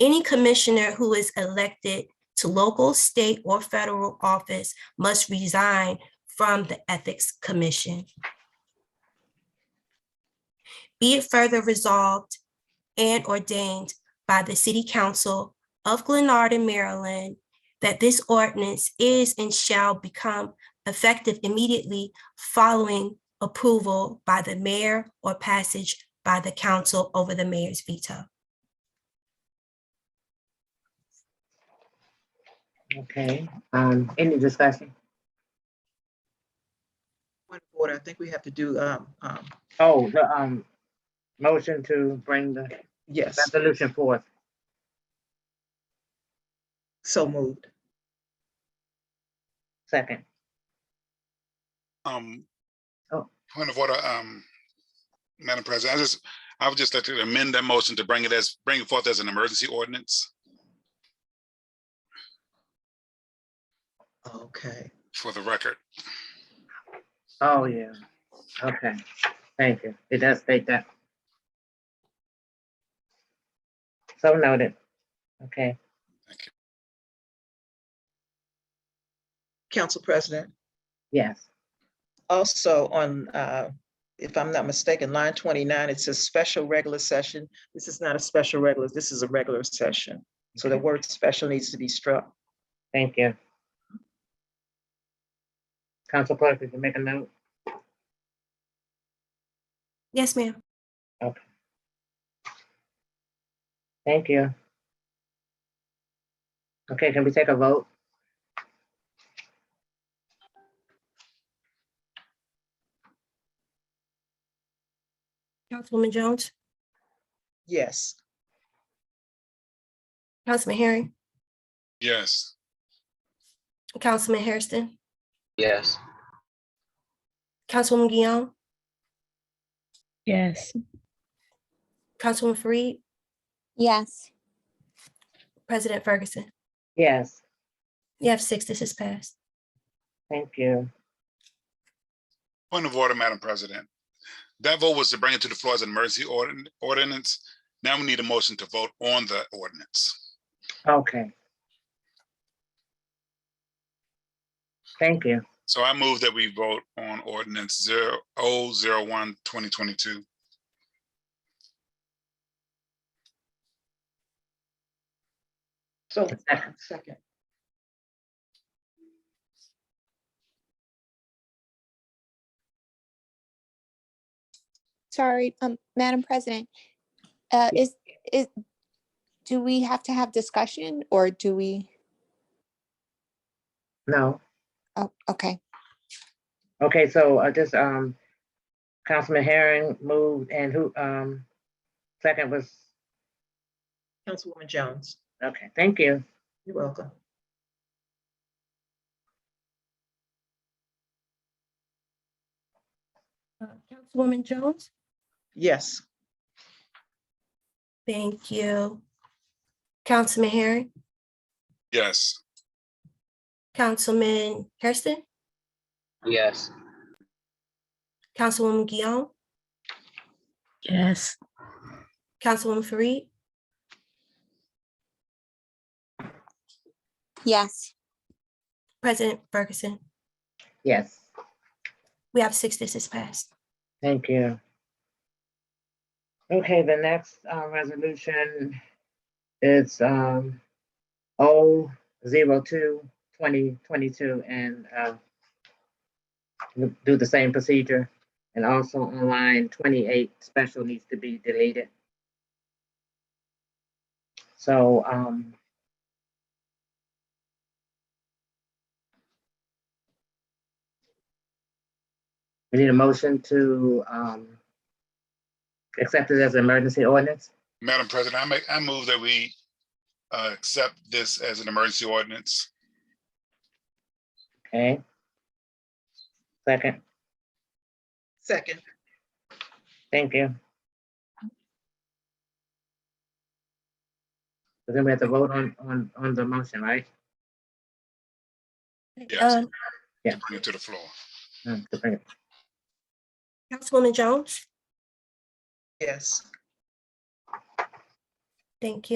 Any commissioner who is elected to local, state, or federal office must resign from the Ethics Commission. Be it further resolved and ordained by the City Council of Glenarden, Maryland, that this ordinance is and shall become effective immediately following approval by the mayor or passage by the council over the mayor's veto. Okay, um, any discussion? Point of order, I think we have to do, um, um, Oh, the, um, motion to bring the yes, resolution forth. so moved. Second, Um, Oh. point of order, um, Madam President, I just, I would just like to amend that motion to bring it as, bring it forth as an emergency ordinance Okay, for the record. oh, yeah. Okay, thank you. It does state that. So noted. Okay, Council President, yes, also on, uh, if I'm not mistaken, line twenty-nine, it says special regular session. This is not a special regular, this is a regular session. So the Okay. word special needs to be struck. thank you. Council clerk, did you make a note? Yes, ma'am. Thank you. Okay, can we take a vote? Councilwoman Jones, Yes, Councilman Herring, Yes, Councilman Hairston, Yes. Councilwoman Guillaume, Yes. Councilwoman Fareed, Yes. President Ferguson. Yes, You have six, this is passed. thank you. point of order, Madam President. That vote was to bring it to the floor as an emergency ordin- ordinance. Now we need a motion to vote on the ordinance. Okay. Thank you. So I move that we vote on ordinance zero oh zero one twenty twenty-two. so, Second. second, Sorry, um, Madam President, uh, Yeah. is, is, do we have to have discussion or do we? No, Oh, okay. okay, so I just, um, Councilman Herring moved and who, um, second was, Councilwoman Jones, okay, thank you. you're welcome. Uh, Councilwoman Jones? Yes, Thank you. Councilman Herring, Yes, Councilman Hairston, Yes. Councilwoman Guillaume, Yes. Councilwoman Fareed, Yes. President Ferguson. Yes, We have six, this is passed. thank you. Okay, the next, uh, resolution is, um, O zero two twenty twenty-two and, uh, do the same procedure and also on line twenty-eight, special needs to be deleted. So, um, we need a motion to, um, accept it as an emergency ordinance? Madam President, I make, I move that we uh, accept this as an emergency ordinance. Okay. Second, second, thank you. So Then we have to vote on, on, on the motion, right? Yes. Um, Bring it to the floor. Mm, to bring it- Councilwoman Jones, yes. thank you.